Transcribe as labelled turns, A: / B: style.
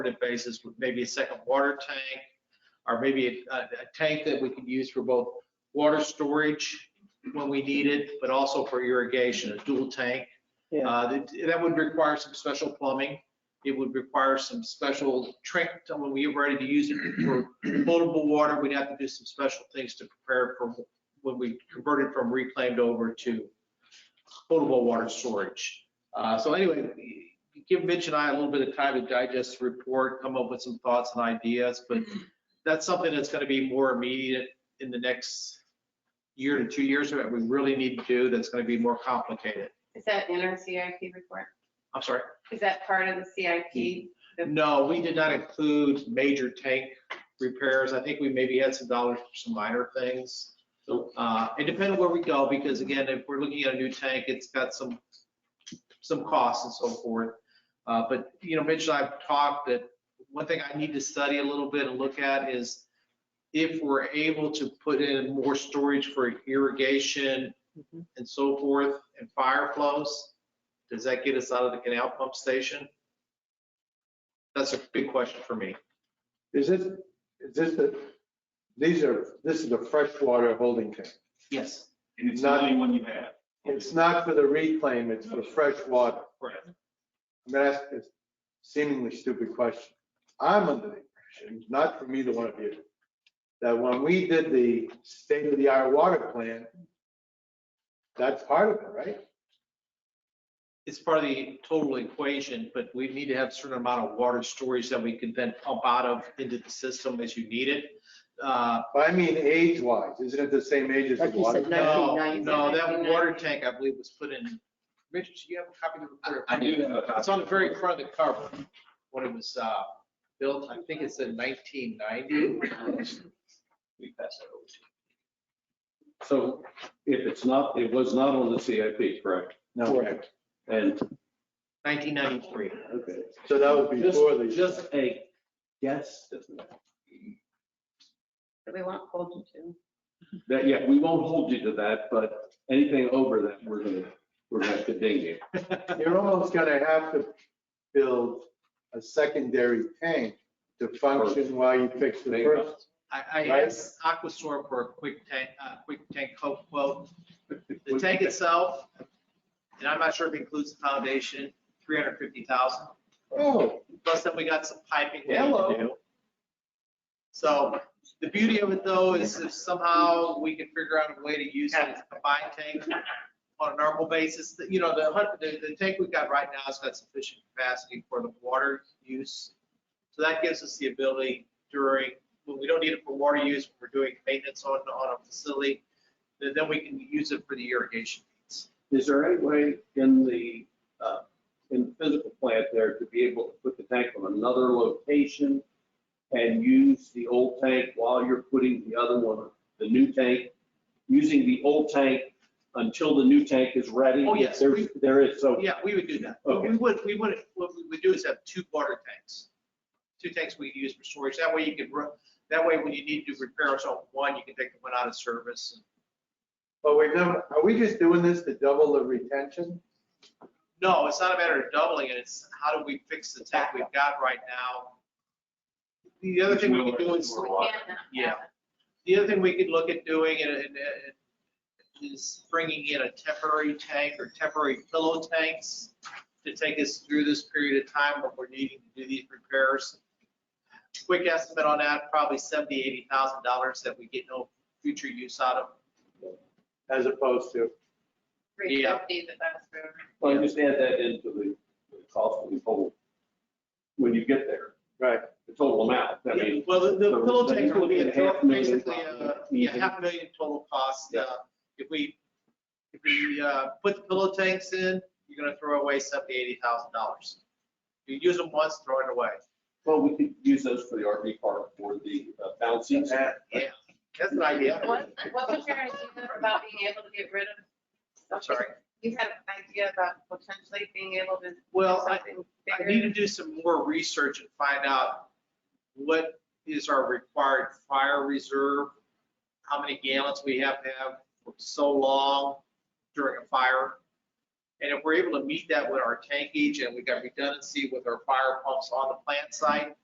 A: supported basis with maybe a second water tank, or maybe a, a tank that we could use for both water storage when we need it, but also for irrigation, a dual tank.
B: Yeah.
A: Uh, that, that would require some special plumbing. It would require some special trick, to- when we get ready to use it for potable water, we'd have to do some special things to prepare for when we converted from reclaimed over to potable water storage. Uh, so anyway, give Mitch and I a little bit of time to digest the report, come up with some thoughts and ideas, but that's something that's gonna be more immediate in the next year to two years that we really need to do that's gonna be more complicated.
C: Is that in our CIP report?
A: I'm sorry.
C: Is that part of the CIP?
A: No, we did not include major tank repairs. I think we maybe had some dollars for some minor things. Uh, It depends on where we go, because again, if we're looking at a new tank, it's got some, some costs and so forth. Uh, But, you know, Mitch and I have talked that one thing I need to study a little bit and look at is if we're able to put in more storage for irrigation
B: Mhm.
A: and so forth and fire flows, does that get us out of the canal pump station? That's a big question for me.
D: Is it, is this the, these are, this is a freshwater holding tank.
A: Yes.
E: And it's the only one you have.
D: It's not for the reclaim, it's for freshwater.
A: Correct.
D: I'm gonna ask this seemingly stupid question. I'm under the impression, not from either one of you, that when we did the state-of-the-art water plan, that's part of it, right?
A: It's part of the total equation, but we need to have a certain amount of water storage that we can then pump out of into the system as you need it. Uh,
D: But I mean age-wise, isn't it the same age as the
B: Like you
D: water?
B: said,
D: tank?
A: No,
B: 1990s.
A: no, that water tank, I believe, was put in, Richard, do you have a copy of the report?
E: I do have a copy.
A: It's on the very front of the cover, when it was uh, built, I think it's in
E: Mm-hmm.
A: 1990.
E: We pass that over to you.
F: So if it's not, it was not on the CIP, correct?
D: No,
F: And,
A: 1993.
F: okay.
D: so that was before the.
F: Just, just a guess, isn't it?
C: We won't hold you to.
F: That, yeah, we won't hold you to that, but anything over that, we're gonna, we're gonna have to ding you.
D: You're almost gonna have to build a secondary tank to function while you fix the first.
A: I, I
D: Right.
A: asked Aquasor for a quick tank, uh, quick tank quote, quote. The tank itself, and I'm not sure if it includes the foundation, three hundred fifty thousand,
D: Oh,
A: plus then we got some piping. we need to
D: Hello.
A: do. So the beauty of it though is if somehow we can figure out a way to use it as a combined tank on a normal basis, that, you know, the, hun- the, the tank we've got right now has got sufficient capacity for the water use. So that gives us the ability during, when we don't need it for water use, when we're doing maintenance on, on a facility, then, then we can use it for the irrigation needs.
F: Is there any way in the, uh, in the physical plant there to be able to put the tank on another location and use the old tank while you're putting the other one, the new tank, using the old tank until the new tank is ready?
A: Oh, yes.
F: There, there is, so,
A: Yeah, we would do that. But We
F: Okay.
A: would, we would, what we would do is have two water tanks. Two tanks we use for storage. That way you can, ru- that way when you need to repair us on one, you can take the one out of service.
D: but we never, are we just doing this to double the retention?
A: No, it's not a matter of doubling it. It's how do we fix the tank we've got right now? The other thing we could do is,
C: We
E: Water.
C: can't not have
A: Yeah.
C: it.
A: the other thing we could look at doing and, and, and is bringing in a temporary tank or temporary pillow tanks to take us through this period of time when we're needing to do these repairs. Quick estimate on that, probably seventy, eighty thousand dollars that we get no future use out of.
D: As opposed to,
C: 350 that that's for-
F: well, just add that into the the cost of the total, when you get there,
D: right,
F: the total amount, I mean.
A: Well, the- the
F: so
A: pillow
F: then
A: tanks
F: you're
A: will be
F: looking
A: a
F: at half
A: total-
F: million
A: basically, uh,
F: probably.
A: yeah, half a million total cost. uh, If we, if we uh, put the pillow tanks in, you're gonna throw away seventy, eighty thousand dollars. You use them once, throw it away.
F: Well, we could use those for the RV park for the uh, bouncing.
A: Yeah, that's an idea.
C: What what was your idea about being able to get rid of?
A: I'm sorry.
C: You had an idea about potentially being able to. do
A: Well, I-
C: something
A: I
C: bigger?
A: need to do some more research and find out what is our required fire reserve? How many gallons we have to have for so long during a fire? And if we're able to meet that with our tank agent, we got redundancy with our fire pumps on the plant site,